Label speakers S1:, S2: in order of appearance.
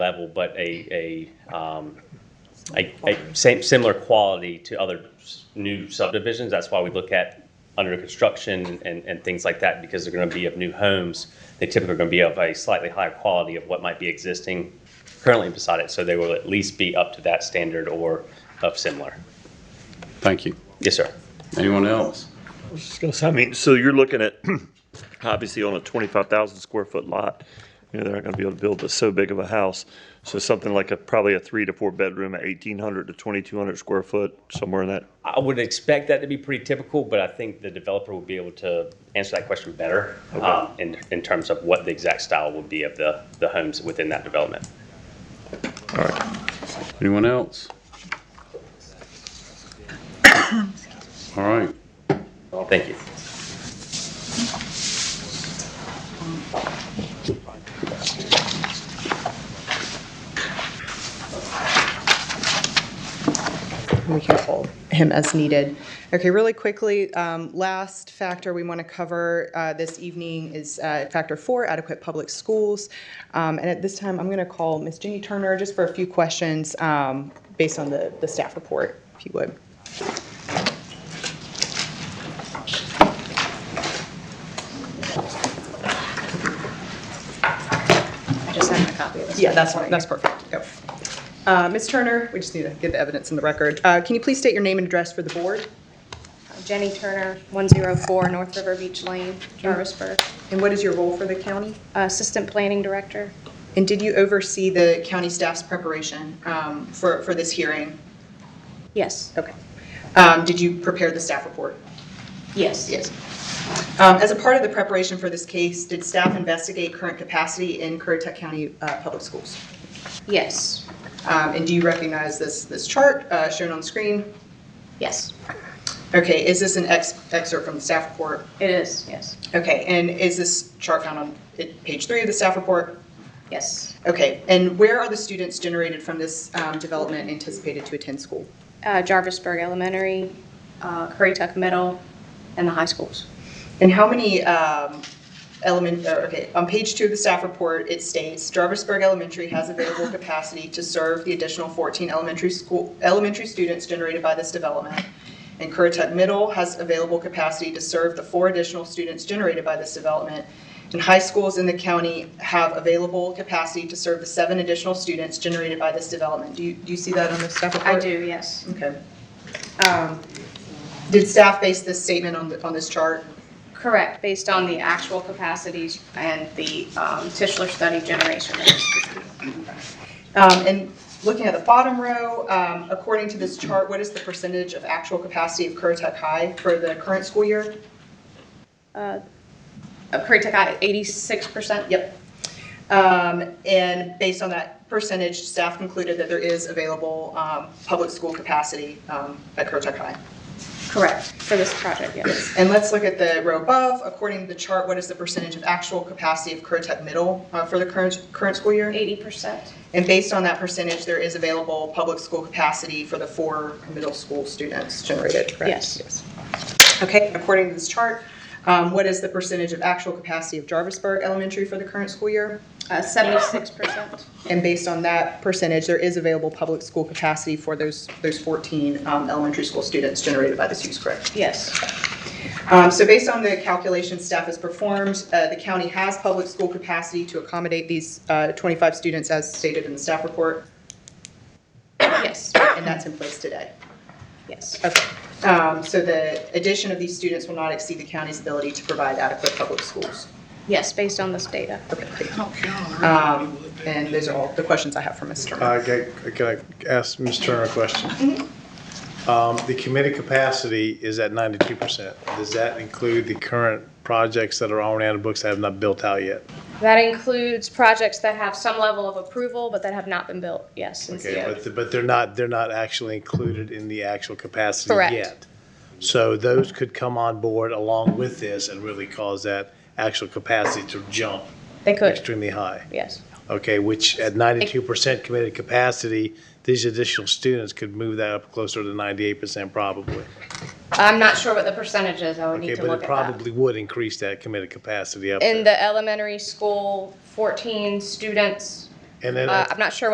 S1: level, but a, a, um, a, a same, similar quality to other s- new subdivisions. That's why we look at under construction and, and things like that, because they're gonna be of new homes. They typically are gonna be of a slightly higher quality of what might be existing currently beside it, so they will at least be up to that standard or of similar.
S2: Thank you.
S1: Yes, sir.
S2: Anyone else?
S3: discuss. I mean, so you're looking at, obviously on a twenty-five thousand square foot lot, you know, they're not gonna be able to build this so big of a house. So something like a, probably a three to four bedroom, eighteen hundred to twenty-two hundred square foot, somewhere in that.
S1: I would expect that to be pretty typical, but I think the developer will be able to answer that question better um, in, in terms of what the exact style would be of the, the homes within that development.
S2: Anyone else? All right.
S1: Thank you.
S4: we can hold him as needed. Okay, really quickly, um, last factor we want to cover uh, this evening is uh, factor four, adequate public schools. Um, And at this time, I'm going to call Ms. Jenny Turner just for a few questions um, based on the, the staff report, if you would.
S5: I just have a copy of this.
S4: Yeah, that's, that's perfect. Go. Uh, Ms. Turner, we just need to get the evidence in the record. Uh, Can you please state your name and address for the board?
S5: Jenny Turner, 104 North River Beach Lane, Jarvisburg,
S4: And what is your role for the county?
S5: Assistant Planning Director.
S4: And did you oversee the county staff's preparation um, for, for this hearing?
S5: Yes.
S4: Okay. Um, Did you prepare the staff report?
S5: Yes.
S4: Um, As a part of the preparation for this case, did staff investigate current capacity in Currituck County uh, Public Schools?
S5: Yes.
S4: Um, And do you recognize this, this chart uh, shown on screen?
S5: Yes.
S4: Okay, is this an ex- excerpt from the staff report?
S5: It is, yes.
S4: Okay, and is this chart found on it- page three of the staff report?
S5: Yes.
S4: Okay, and where are the students generated from this um, development anticipated to attend school?
S5: Uh, Jarvisburg Elementary, uh, Currituck Middle, and the high schools.
S4: And how many um, element, or, okay, on page two of the staff report, it states Jarvisburg Elementary has available capacity to serve the additional 14 elementary school, elementary students generated by this development. And Currituck Middle has available capacity to serve the four additional students generated by this development. And high schools in the county have available capacity to serve the seven additional students generated by this development. Do you, do you see that on the staff report?
S5: I do, yes.
S4: Okay. Um, Did staff base this statement on, the- on this chart?
S5: Correct, based on the actual capacities and the um, Tischler study generation.
S4: Um, And looking at the bottom row, um, according to this chart, what is the percentage of actual capacity of Currituck High for the current school year?
S5: Uh, uh, Currituck got 86%?
S4: Yep. Um, And based on that percentage, staff concluded that there is available um, public school capacity um, at Currituck High.
S5: Correct, for this project, yes.
S4: And let's look at the row above. According to the chart, what is the percentage of actual capacity of Currituck Middle uh, for the current, current school year?
S5: 80%?
S4: And based on that percentage, there is available public school capacity for the four middle school students generated, correct?
S5: Yes.
S4: Okay, according to this chart, um, what is the percentage of actual capacity of Jarvisburg Elementary for the current school year?
S5: Uh, Seventy-six percent?
S4: And based on that percentage, there is available public school capacity for those, those 14 um, elementary school students generated by this use, correct?
S5: Yes.
S4: Um, So based on the calculations staff has performed, uh, the county has public school capacity to accommodate these uh, 25 students as stated in the staff report,
S5: Yes.
S4: and that's in place today.
S5: Yes.
S4: Okay, um, so the addition of these students will not exceed the county's ability to provide adequate public schools.
S5: Yes, based on this data.
S4: Okay, thank you. Um, And those are all the questions I have for Mr. Turner.
S6: I got, can I ask Ms. Turner a question?
S5: Mm-hmm.
S6: Um, The committed capacity is at ninety-two percent. Does that include the current projects that are already on the books that have not built out yet?
S5: That includes projects that have some level of approval, but that have not been built, yes, and
S6: Okay,
S5: CO'd.
S6: but, but they're not, they're not actually included in the actual capacity
S5: Correct.
S6: yet. So those could come on board along with this and really cause that actual capacity to jump
S5: They could,
S6: extremely high.
S5: yes.
S6: Okay, which at ninety-two percent committed capacity, these additional students could move that up closer to ninety-eight percent probably.
S5: I'm not sure what the percentage is, I would
S6: Okay,
S5: need to
S6: but
S5: look
S6: it
S5: at that.
S6: probably would increase that committed capacity up
S5: In
S6: there.
S5: the elementary school, fourteen students
S6: And then
S5: Uh,
S6: at-
S5: I'm not sure